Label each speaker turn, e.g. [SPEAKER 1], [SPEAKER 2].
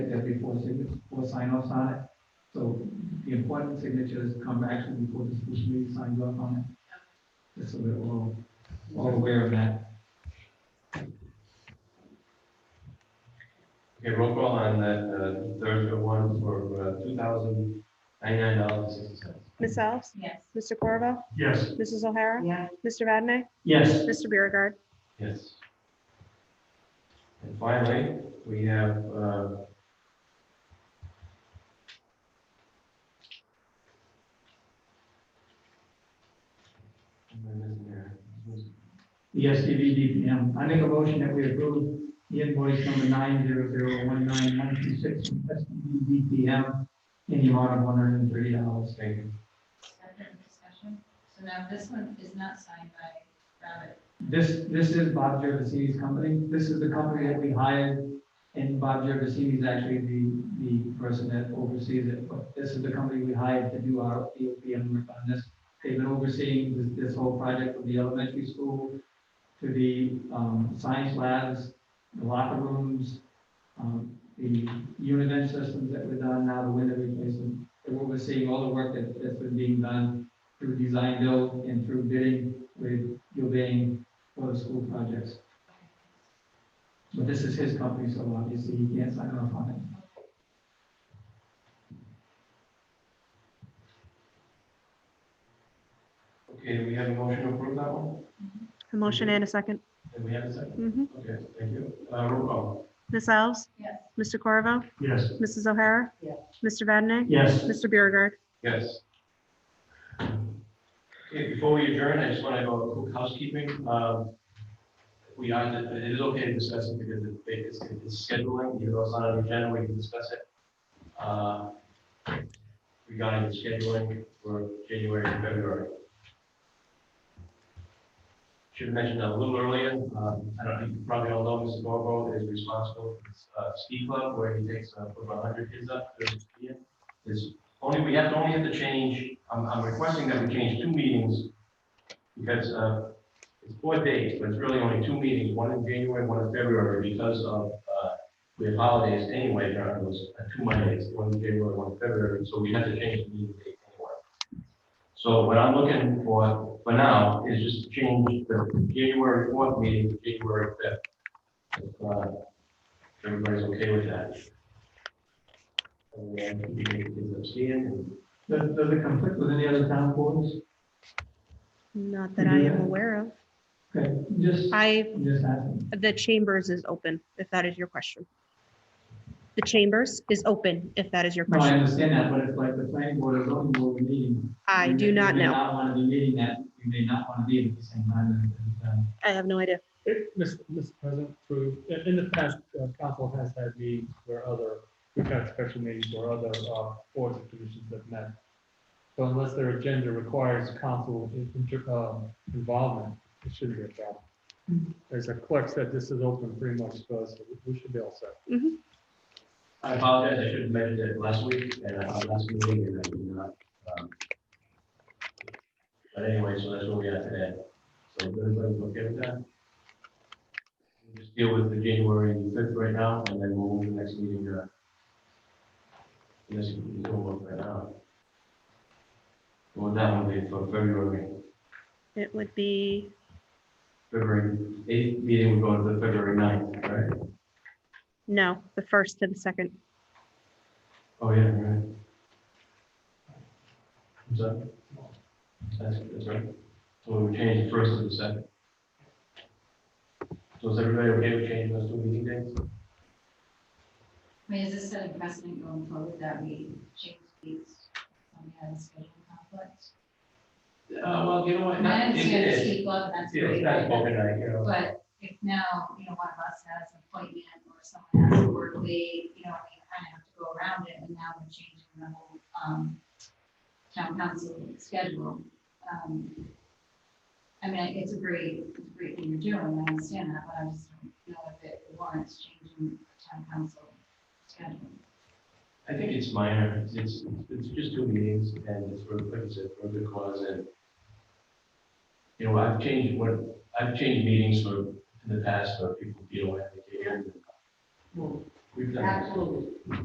[SPEAKER 1] there'll be four signatures, four sign-offs on it. So the important signatures come actually before the school committee signs off on it. Just so we're all, all aware of that.
[SPEAKER 2] Okay, roll call on that, uh, third one for, uh, two thousand ninety-nine dollars and sixty cents.
[SPEAKER 3] Ms. Alves?
[SPEAKER 4] Yes.
[SPEAKER 3] Mr. Corvo?
[SPEAKER 1] Yes.
[SPEAKER 3] Mrs. O'Hara?
[SPEAKER 4] Yes.
[SPEAKER 3] Mr. Vadney,
[SPEAKER 1] Yes.
[SPEAKER 3] Mr. Beauregard?
[SPEAKER 2] Yes. And finally, we have, uh, what am I missing here?
[SPEAKER 1] The SCV DPM. I make a motion that we approve the invoice number nine zero zero one nine one two six from SCV DPM in the amount of one hundred and thirty dollars.
[SPEAKER 2] Thank you.
[SPEAKER 4] Separate discussion. So now this one is not signed by Robert.
[SPEAKER 1] This, this is Bob Gervasini's company. This is the company that we hired. And Bob Gervasini is actually the, the person that oversees it. But this is the company we hired to do our EOPM work on this. They've been overseeing this, this whole project from the elementary school to the, um, science labs, the locker rooms, um, the univent systems that were done, now the window replacement. And we're overseeing all the work that, that's been being done through design build and through bidding with Gilbane for the school projects. But this is his company, so obviously he can't sign off on it.
[SPEAKER 2] Okay, do we have a motion to approve that one?
[SPEAKER 3] A motion and a second.
[SPEAKER 2] Do we have a second?
[SPEAKER 3] Mhm.
[SPEAKER 2] Okay, thank you. Uh, roll call.
[SPEAKER 3] Ms. Alves?
[SPEAKER 4] Yes.
[SPEAKER 3] Mr. Corvo?
[SPEAKER 1] Yes.
[SPEAKER 3] Mrs. O'Hara?
[SPEAKER 4] Yes.
[SPEAKER 3] Mr. Vadney,
[SPEAKER 1] Yes.
[SPEAKER 3] Mr. Beauregard?
[SPEAKER 2] Yes. Okay, before we adjourn, I just want to go a quick housekeeping. Um, We are, it is okay to discuss it because it- it's it's scheduling, you know, it's on an agenda, we can discuss it. Uh, Regarding the scheduling for January and February. Should have mentioned that a little earlier, Um, I don't know, you probably all know Mr. Borbo is responsible for this, uh, ski club where he takes uh, about 100 kids up during the year. There's only, we have, only have to change, I'm, I'm requesting that we change two meetings because, uh, it's four days, but it's really only two meetings, one in January, one in February, because of, uh, we have holidays anyway, there are those, uh, two Mondays, one in January, one in February, so we have to change the meeting date anyway. So what I'm looking for, for now, is just to change the January fourth meeting to January fifth. If, uh, everybody's okay with that. And then we can get them seeing and
[SPEAKER 1] Does, does it conflict with any other town boards?
[SPEAKER 3] Not that I am
[SPEAKER 1] Yeah.
[SPEAKER 3] aware of.
[SPEAKER 1] Okay, just,
[SPEAKER 3] I,
[SPEAKER 1] just asking.
[SPEAKER 3] the Chambers is open, if that is your question. The Chambers is open, if that is your
[SPEAKER 1] No, I
[SPEAKER 3] question.
[SPEAKER 1] understand that, but it's like the planning board or zoning board we're meeting.
[SPEAKER 3] I
[SPEAKER 1] You
[SPEAKER 3] do
[SPEAKER 1] may-
[SPEAKER 3] not
[SPEAKER 1] You may
[SPEAKER 3] know.
[SPEAKER 1] not want to be meeting that, you may not want to be at the same time. as- as, um,
[SPEAKER 3] I have no idea.
[SPEAKER 5] It- Mr. Mr. President, through, in- in the past, uh, council has had meetings where other, we've had special meetings where other uh, boards and commissions have met. So unless their agenda requires council in- inter- um, involvement, it shouldn't be a problem. As the clerk said, this is open pretty much, so we- we should be all set.
[SPEAKER 2] I apologize, I should have mentioned it last week, and uh, last meeting, and I did not. um, But anyway, so that's where we are today. So if everybody's okay with that? We'll Just deal with the January fifth right now, and then we'll move to the next meeting. uh, Yes, we don't work right now. Well, that will be for February,
[SPEAKER 3] It would be,
[SPEAKER 2] February eighth meeting, we're going to the February ninth, right?
[SPEAKER 3] no, the first to the second.
[SPEAKER 2] Oh, yeah, right. Is that? That's, that's right. So we change the first to the second. So is everybody okay with changing those two meeting dates?
[SPEAKER 4] I mean, is this setting precedent going forward that we change these when we have a scheduling conflict?
[SPEAKER 2] Uh, well, you know what?
[SPEAKER 4] I understand the speak club, that's
[SPEAKER 2] It's
[SPEAKER 4] great,
[SPEAKER 2] not
[SPEAKER 4] but
[SPEAKER 2] open night, you know.
[SPEAKER 4] but if now, you know, one of us has an appointment or someone has to work late, you know, we kind of have to go around it, and now we're changing the whole, um, town council schedule. Um, I mean, it's a great, it's a great thing you're doing, I understand that, but I just don't know if it warrants changing the town council schedule.
[SPEAKER 2] I think it's minor. It's- It's, it's just two meetings and it's for, like I said, for a good cause and you know, I've changed what, I've changed meetings for, in the past for people, you know, I think, and
[SPEAKER 4] Well,
[SPEAKER 6] We've done this.
[SPEAKER 2] Absolutely.